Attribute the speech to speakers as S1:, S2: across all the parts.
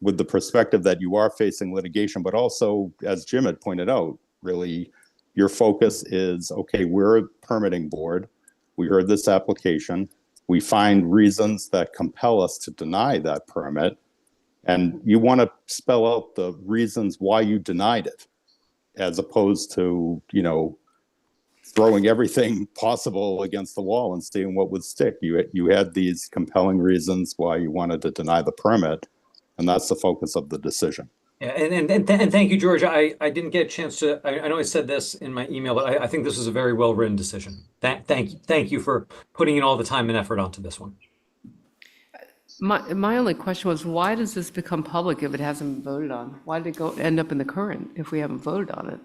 S1: with the perspective that you are facing litigation, but also, as Jim had pointed out, really, your focus is, okay, we're a permitting board. We heard this application. We find reasons that compel us to deny that permit. And you want to spell out the reasons why you denied it, as opposed to, you know, throwing everything possible against the wall and seeing what would stick. You, you had these compelling reasons why you wanted to deny the permit, and that's the focus of the decision.
S2: Yeah, and, and, and, th- and thank you, George. I, I didn't get a chance to, I, I know I said this in my email, but I, I think this is a very well-written decision. Thank, thank, you- thank you for putting in all the time and effort onto this one.
S3: My, my only question was, why does this become public if it hasn't been voted on? Why did it go, end up in the current if we haven't voted on it?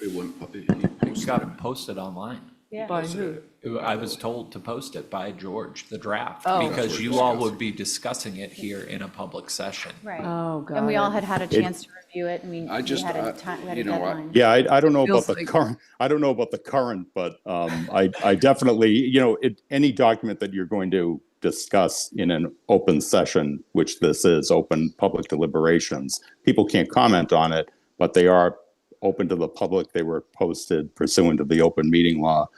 S4: It wouldn't, pop- it- it
S5: It
S4: posted
S5: got posted online.
S3: By who?
S5: I was told to post it by George, the draft,
S6: Oh.
S5: because you all would be discussing it here in a public session.
S6: Right.
S3: Oh, got
S6: And we all
S3: it.
S6: had had a chance to review it, and we
S4: I
S6: we
S4: just-
S6: had
S4: I-
S6: a time, we had
S4: you
S6: a
S4: know, I-
S6: deadline.
S1: Yeah, I, I don't know about
S3: Feels
S1: the
S3: like-
S1: current, I don't know about the current, but um, I, I definitely, you know, it, any document that you're going to discuss in an open session, which this is, open public deliberations, people can't comment on it, but they are open to the public. They were posted pursuant to the open meeting law.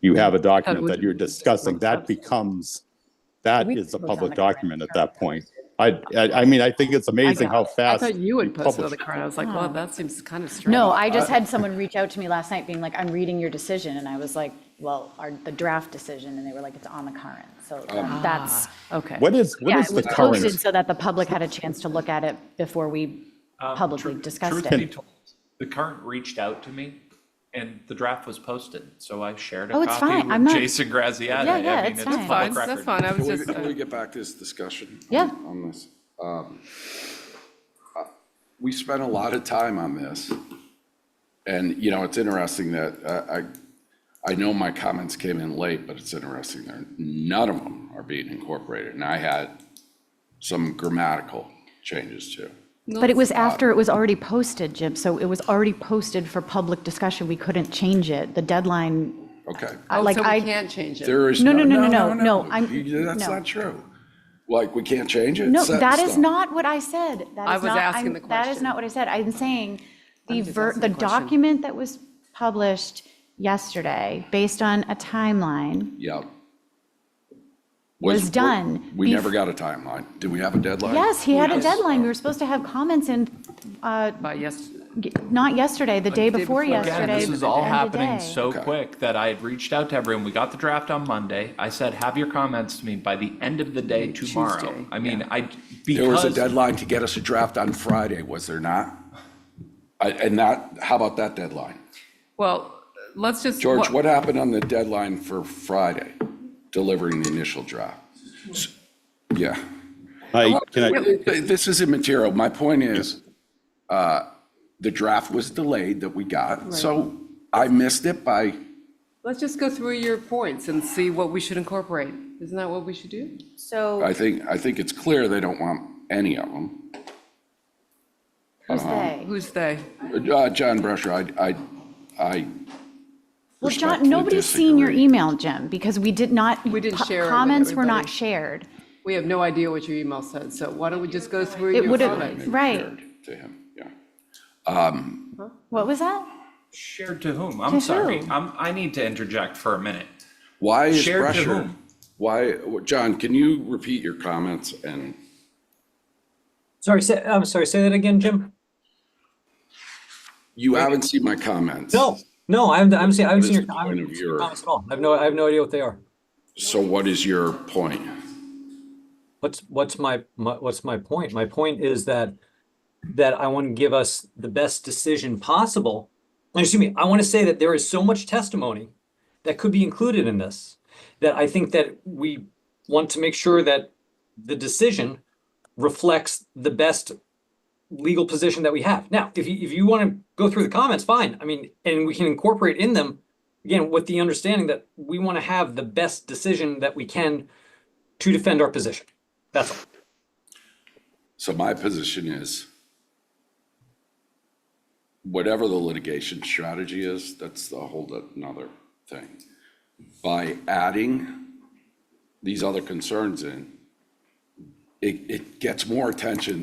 S1: You have a document
S3: would-
S1: that you're discussing, that becomes, that is a public document at that point. I, I, I mean, I think it's amazing how
S3: I
S1: fast.
S3: thought you would post it on the
S1: publish it.
S3: current. I was like, wow, that seems kind of strange.
S6: No, I just had someone reach out to me last night being like, I'm reading your decision, and I was like, well, our, the draft decision, and they were like, it's on the current, so um, that's,
S3: Okay.
S1: What is, what
S6: yeah,
S1: is
S6: it
S1: the
S6: was
S1: current?
S6: posted so that the public had a chance to look at it before we publicly discussed
S5: Truth
S6: it.
S5: be told, the current reached out to me and the draft was posted, so I shared a
S6: Oh, it's
S5: copy
S6: fine. I'm
S5: with
S6: not-
S5: Jason Graziati.
S6: Yeah,
S5: I
S6: yeah,
S5: mean,
S6: it's
S5: it's
S6: fine.
S3: Fine,
S5: public
S3: that's
S5: record.
S3: fine. I was
S4: Can we-
S3: just, uh,
S4: Can we get back to this discussion? on-
S6: Yeah.
S4: On this. Um, uh, We spent a lot of time on this. And, you know, it's interesting that uh, I, I know my comments came in late, but it's interesting there, none of them are being incorporated. And I had some grammatical changes too.
S6: But it was after it was already posted, Jim, so it was already posted for public discussion, we couldn't change it, the deadline,
S4: Okay.
S6: I-
S3: oh,
S6: like,
S3: so we
S6: I.
S3: can't change it.
S4: There is.
S6: No, no, no, no, no, I'm-
S4: You- That's
S6: no.
S4: not true. Like, we can't change it?
S6: No,
S4: Set in
S6: that is
S4: stone.
S6: not what I said. That
S3: I
S6: is
S3: was
S6: not-
S3: asking
S6: I'm-
S3: the
S6: That is
S3: question.
S6: not what I said. I'm saying the
S3: just
S6: ver,
S3: asking
S6: the
S3: the question.
S6: document that was published yesterday, based on a timeline,
S4: Yep.
S6: Was done
S4: We
S6: bef-
S4: never got a timeline. Did we have a deadline?
S6: yes, he had a deadline. We were supposed to have comments in, uh,
S3: By yes,
S6: g- not yesterday, the day
S3: day before.
S6: before
S5: Again,
S6: yesterday.
S5: this is
S6: the
S5: all
S6: end of
S5: happening
S6: day.
S5: so quick that I had reached out to everyone. We got the draft on Monday. I said, have your comments to me by the end of the day tomorrow.
S3: Tuesday,
S5: I mean, I,
S4: There was a
S5: because
S4: deadline to get us a draft on Friday, was there not? I- And that, how about that deadline?
S3: well, let's just.
S4: George, what happened on the deadline for Friday, delivering the initial draft? S- Yeah.
S1: I- can I-
S4: This is immaterial. My point is, uh, the draft was delayed that we got, so I missed it by,
S3: Let's just go through your points and see what we should incorporate. Isn't that what we should do?
S6: So,
S4: I think, I think it's clear they don't want any of them.
S6: who's they?
S3: Who's they?
S4: Uh, John Brescher, I, I, I.
S6: Well, John,
S4: respectfully
S6: nobody's seen your
S4: disagree.
S6: email, Jim, because we did not.
S3: We didn't
S6: po-
S3: share it with
S6: Comments were not
S3: everybody.
S6: shared.
S3: We have no idea what your email said, so why don't we just go through
S6: It
S3: your
S6: would
S3: comments?
S6: have, right.
S4: Shared To him, yeah.
S6: What was that?
S5: shared to whom? I'm sorry. I'm, I need to interject for a minute.
S4: Why is
S5: Shared to
S4: Brescher?
S5: whom?
S4: Why, John, can you repeat your comments and,
S2: Sorry, say, I'm sorry, say that again, Jim?
S4: you haven't seen my comments.
S2: No, no, I'm, I'm saying, I haven't
S4: What is
S2: seen your
S4: the
S2: I
S4: point
S2: haven't
S4: of
S2: seen your
S4: your-
S2: comments at all. I have no, I have no idea what they are.
S4: So what is your point?
S2: What's, what's my, my, what's my point? My point is that, that I want to give us the best decision possible. And Excuse me, I want to say that there is so much testimony that could be included in this, that I think that we want to make sure that the decision reflects the best legal position that we have. Now, if you, if you want to go through the comments, fine. I mean, and we can incorporate in them, again, with the understanding that we want to have the best decision that we can to defend our position. That's all.
S4: So my position is whatever the litigation strategy is, that's a whole another thing. By adding these other concerns in, it, it gets more attention